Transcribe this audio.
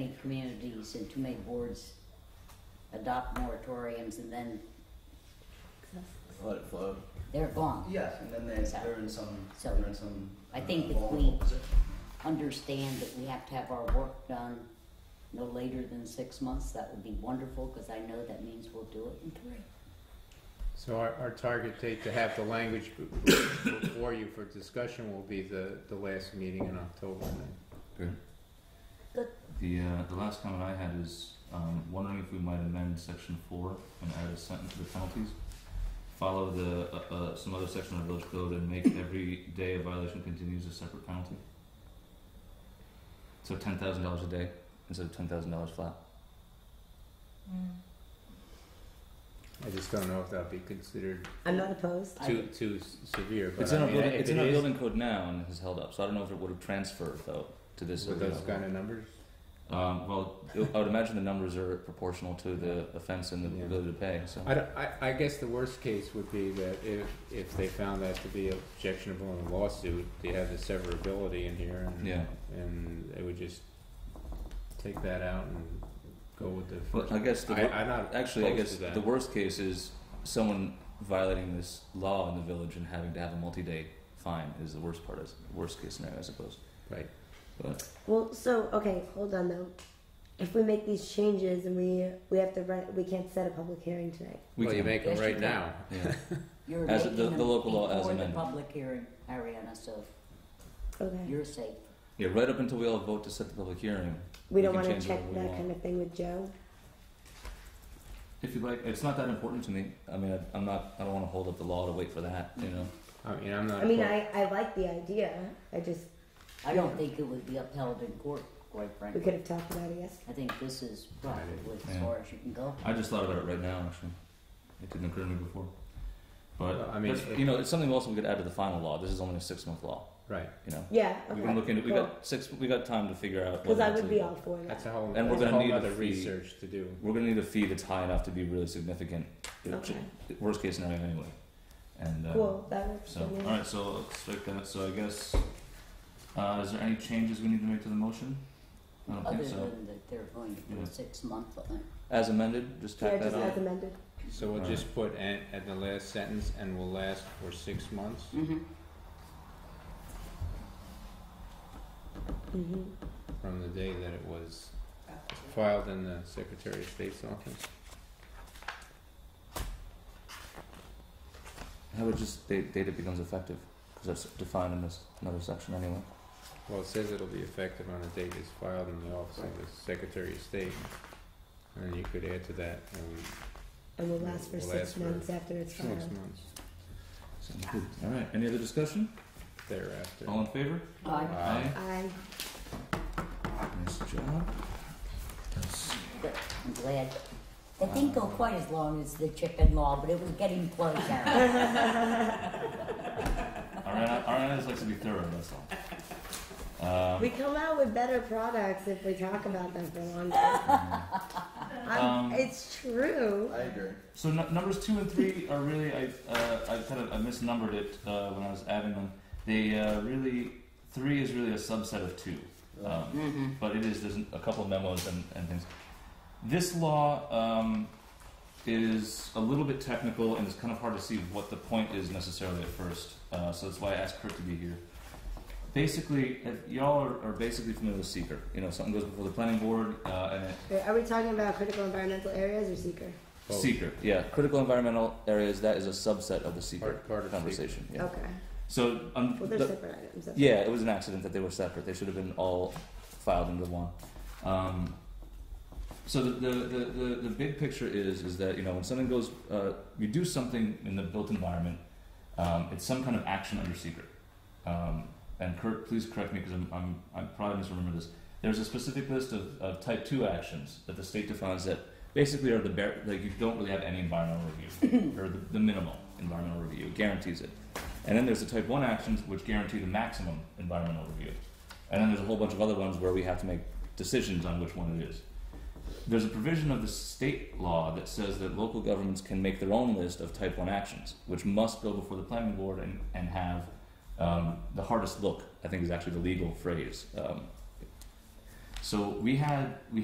many communities and too many boards adopt moratoriums and then Let it flow. they're gone. Yes, and then they, they're in some, So- they're in some. I uh, think if vulnerable we- position. Understand that we have to have our work done no later than six months. That would be wonderful because I know that means we'll do it in three. So our, our target date to have the language b- before you for discussion will be the, the last meeting in October then. Good. Good. The, uh, the last comment I had is, um, wondering if we might amend section four and add a sentence to the penalties. Follow the, uh, uh, some other section of the village code and make every day a violation continues a separate penalty. So ten thousand dollars a day instead of ten thousand dollars flat. I just don't know if that'll be considered I'm not opposed. I too, think- too s- severe, but It's in I our mean, building, if it's it in our is building code now and has held up, so I don't know if it would have transferred though to this. with other those level. kind of numbers, Um, well, I would imagine the numbers are proportional to the offense and the Yeah. ability to pay, so. I, don't- I, I guess the worst case would be that if, if they found that to be objectionable in a lawsuit, they have the severability in here and, Yeah. and they would just take that out and go with the Well, first. I guess the, I, I'm not actually, I opposed guess to that. the worst case is someone violating this law in the village and having to have a multi-day fine is the worst part, is worst case scenario, I suppose. Right. But Well, so okay, hold on though. If we make these changes and we we have to run, we can't set a public hearing tonight. we well, you can make them Yes, you right can. now. yeah. You're As making the- them the local law as before the amended. public hearing, Ariana, so Okay. you're safe. yeah, right up until we all vote to set the public hearing. We don't can want change to check whatever we that want. kind of thing with Joe. If you like, it's not that important to me. I mean, I, I'm not. I don't want to hold up the law to wait for that. You know. I mean, Oh, I'm not. I mean, opposed- I I like the idea. I just I don't think it would be upheld in court, quite we frankly. could have talked about it yesterday. I think this is probably as Yeah. far as you can go. I just thought about it right now. Actually, it didn't occur to me before. But Well, I mean, that's- it- you know, it's something else we could add to the final law. This is only a six-month law. Right. You know. Yeah. We Okay. can look into. We got six. We got time to figure out. Because whether I it's would be legal. all for That's that. a whole. And we're that's a gonna whole need a other fee. research to do. We're gonna need a fee that's high enough to be really significant. you know, Okay. ch- Worst case scenario, anyway. And uh, Cool. That works so, for me. all right. So let's strike that. So I guess, uh, is there any changes we need to make to the motion? I don't Other think so. than that they're going to do Yeah. a six-month limit. As amended, just Yeah, tack that just on. as amended. So we'll Right. just put at, at the last sentence, and will last for six months. Mm-hmm. hmm from the day that it was filed in the Secretary of State's office. How about just date, date it becomes effective? Because that's defined in this another section anyway. Well, it says it'll be effective on the date it's filed in the office of the Secretary of State. And you could add to that, um, And will last for Will six last for months after it's six filed. months Sounds good. All right. Any other discussion? thereafter. All in favor? Aye. Aye. I Nice job. That's- But I'm glad. That didn't go quite as long as the chicken law, but it was getting close. Aaron. Ariana, Ariana just likes to be thorough. That's all. Um, we come out with better products if we talk about them for longer. I'm Um, it's true. I agree. So n- numbers two and three are really I uh, I kind of I misnumbered it uh, when I was adding them. They uh, really three is really a subset of two, um, Mhm. but it is there's a couple memos and, and things. This law um, is a little bit technical and it's kind of hard to see what the point is necessarily at first. Uh, so that's why I asked Kurt to be here. Basically, if y'all are, are basically familiar with seeker. You know, something goes before the planning board uh, and it Wait, Are we talking about critical environmental areas or seeker? Both. Seeker, yeah. Critical environmental areas, that is a subset of the seeker Part, part of the conversation. Yeah. Okay. So, um, Well, they're the- separate items. that's yeah, it was an accident that they were separate. They should have been all filed into one. Um, so the, the, the, the, the big picture is is that you know when something goes, uh, you do something in the built environment. Um, it's some kind of action under secret. Um, and Kurt, please correct me because I'm, I'm, I'm probably misremember this. There's a specific list of, of type two actions that the state defines that basically are the bare, like you don't really have any environmental review or the, the minimal environmental review It guarantees it. And then there's the type 1 actions which guarantee the maximum environmental review. And then there's a whole bunch of other ones where we have to make decisions on which one it is. There's a provision of the state law that says that local governments can make their own list of type 1 actions, which must go before the planning board and, and have um, the hardest look, I think is actually the legal phrase. Um, So we had we